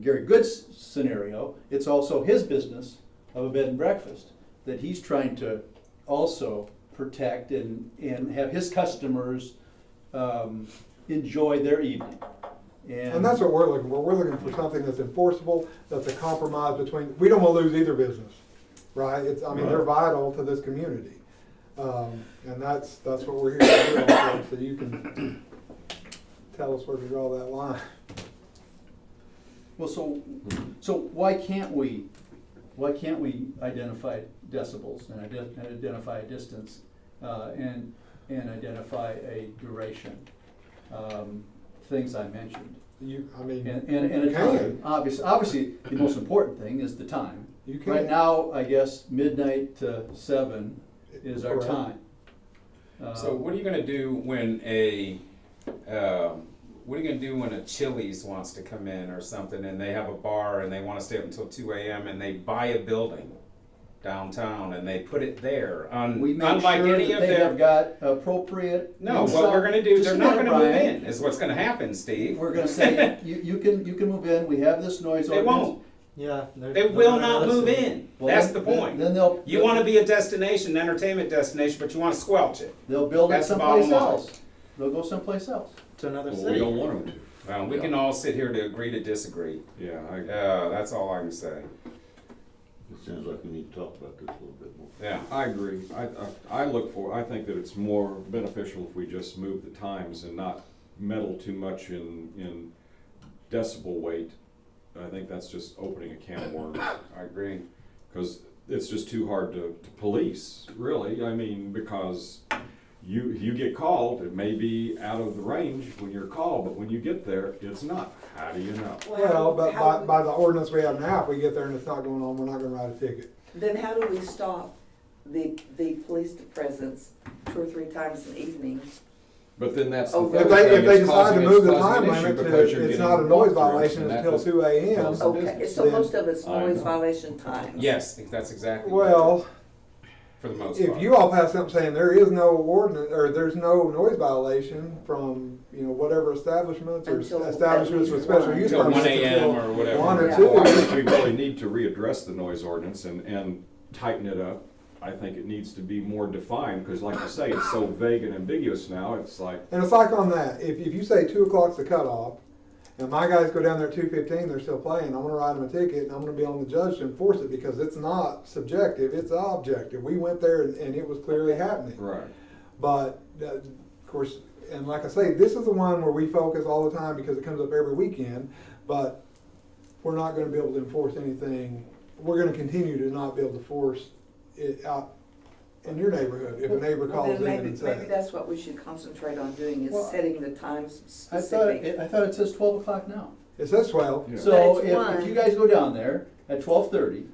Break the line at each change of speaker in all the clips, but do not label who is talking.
Gary Good's scenario, it's also his business of a bed and breakfast that he's trying to also protect and, and have his customers um, enjoy their evening.
And that's what we're looking for. We're looking for something that's enforceable, that's a compromise between, we don't want to lose either business, right? It's, I mean, they're vital to this community. Um, and that's, that's what we're here to do, also, so you can tell us where to draw that line.
Well, so, so why can't we, why can't we identify decibels and iden- and identify a distance, uh, and, and identify a duration? um, Things I mentioned.
You, I mean,
And, and, and
you
a time,
can,
obviously, obviously, the most important thing is the time.
you can.
Right now, I guess midnight to seven is our
Correct.
time. Uh,
So what are you gonna do when a, um, what are you gonna do when a Chili's wants to come in or something and they have a bar and they wanna stay up until two AM and they buy a building downtown and they put it there on,
We make
unlike
sure
any
that
of
they have
their.
got appropriate.
No,
inside-
what we're gonna do,
Just
they're
a
not
minute,
gonna move
Brian.
in, is what's gonna happen, Steve.
We're gonna say, you, you can, you can move in, we have this noise
They
ordinance.
won't,
Yeah.
they will not move in,
Well,
that's the
then-
point.
Then they'll.
You wanna be a destination, entertainment destination, but you wanna squelch it.
They'll build it
That's the
someplace
bottom line.
else. They'll go someplace else.
To another
Well, we
city.
don't want them
Well, we can all sit here to agree to disagree,
to. Yeah, I,
uh, that's all I can say,
it sounds like we need to talk about this a little bit more.
yeah.
I agree. I, I, I look for, I think that it's more beneficial if we just move the times and not meddle too much in, in decibel weight. I think that's just opening a can of worms.
I agree.
because it's just too hard to, to police, really. I mean, because you you get called, it may be out of the range when you're called, but when you get there, it's not. How do you know?
Well, but
how-
by, by the ordinance we have now, if we get there and it's not going on, we're not gonna write a ticket.
Then how do we stop the, the police presence two or three times an evening?
But then that's the
Oh,
third
If they,
thing,
if they
it's
decide to
causing-
move the
it's causing
time
an issue
limit to,
because you're
it's
getting
not a noise
walkthroughs,
violation
and that
until
was-
two AM.
It's a
Okay,
business,
so
then-
most of it's
I
noise
know.
violation times.
Yes, that's exactly. what it is,
Well,
For the most part.
if you all pass something saying there is no ordinance, or there's no noise violation from, you know, whatever establishments or
Until at
establishments with
least
special
one.
use
Until
permits.
1 a.m.
until
or whatever.
One or
Yeah.
Well, I
two.
think we really need to readdress the noise ordinance and, and tighten it up. I think it needs to be more defined, because like you say, it's so vague and ambiguous now, it's like,
And it's like on that, if, if you say two o'clock's the cutoff, and my guys go down there at two fifteen, they're still playing, I'm gonna write them a ticket, and I'm gonna be on the judge to enforce it, because it's not subjective, it's objective. We went there and, and it was clearly happening.
right.
But uh, of course, and like I say, this is the one where we focus all the time because it comes up every weekend. But we're not going to be able to enforce anything. We're going to continue to not be able to force it out in your neighborhood if a neighbor
Well,
calls
then
in
maybe,
and
maybe
says.
that's what we should concentrate on doing
Well,
is setting the times
I thought,
specific.
it- I thought it says twelve o'clock now.
It says twelve.
Yeah.
So
But it's
if,
one.
if you guys go down there at twelve thirty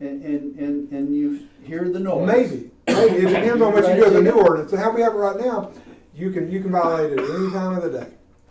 and, and, and, and you hear the noise.
Maybe, maybe it depends on what you do with the new ordinance. So how we have it right now, you can you can violate it any time of the day.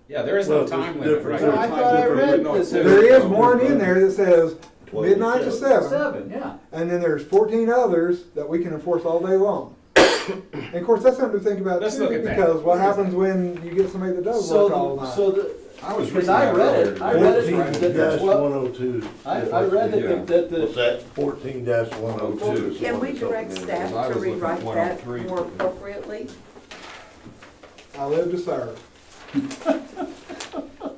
Yeah, there is no
Well, there's
time limit,
different-
right?
Well, I thought I read
No,
this.
it says-
There is one in there that says
Twelve to
midnight to seven.
seven.
Seven, yeah.
And then there's fourteen others that we can enforce all day long. And of course, that's something to think about
Let's
too,
look at that.
because what happens when you get somebody that does
So,
work all
the-
night?
so the,
I was
because
reading
I
that
read it,
earlier.
I read it,
Fourteen
that the
dash one
twelve,
oh two.
I, I read that the, that
What's
the,
that? Fourteen dash one oh
Well,
two.
Can we direct
I
staff
was
to
looking oh at
rewrite that
103.
more appropriately?
I live to serve.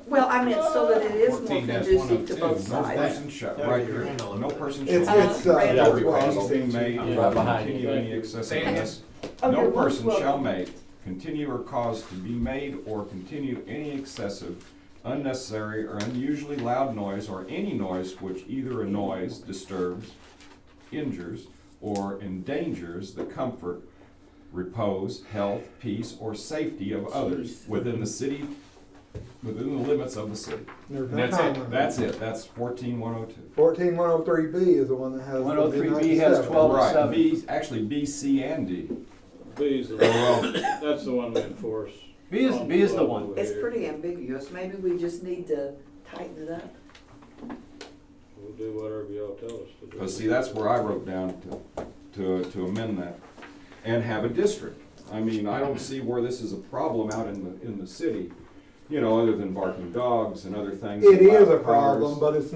Well, I meant so that it is
14-102,
more conducive to both
oh No
sides.
person shall,
Yeah,
right
you're
here,
in a little
no
bit.
person shall.
It's,
Uh,
it's, uh,
right.
that's
Every
why-
request made
I'm
or
right behind you.
continue any excessive
Say again.
noise.
Oh,
No
you're
person
welcome.
shall make, continue or cause to be made or continue any excessive, unnecessary, or unusually loud noise or any noise which either annoys, disturbs, injures, or endangers the comfort, repose, health, peace, or safety of others within the city, within the limits of the city.
There's no
And that's
time
it,
limit.
that's it, that's fourteen one oh two.
Fourteen one oh three B is the one that has. the
103B
midnight to
has
seven.
12.
oh
Right,
seven.
B, actually B, C, and D.
B's the one, that's the one we enforce.
B is, B is the one.
Over
It's
here.
pretty ambiguous. Maybe we just need to tighten it up.
We'll do whatever y'all tell us to do.
Because see, that's where I wrote down to, to, to amend that, and have a district. I mean, I don't see where this is a problem out in the, in the city. you know, other than barking dogs and other things.
It
and
is a
loud cars.
problem, but it's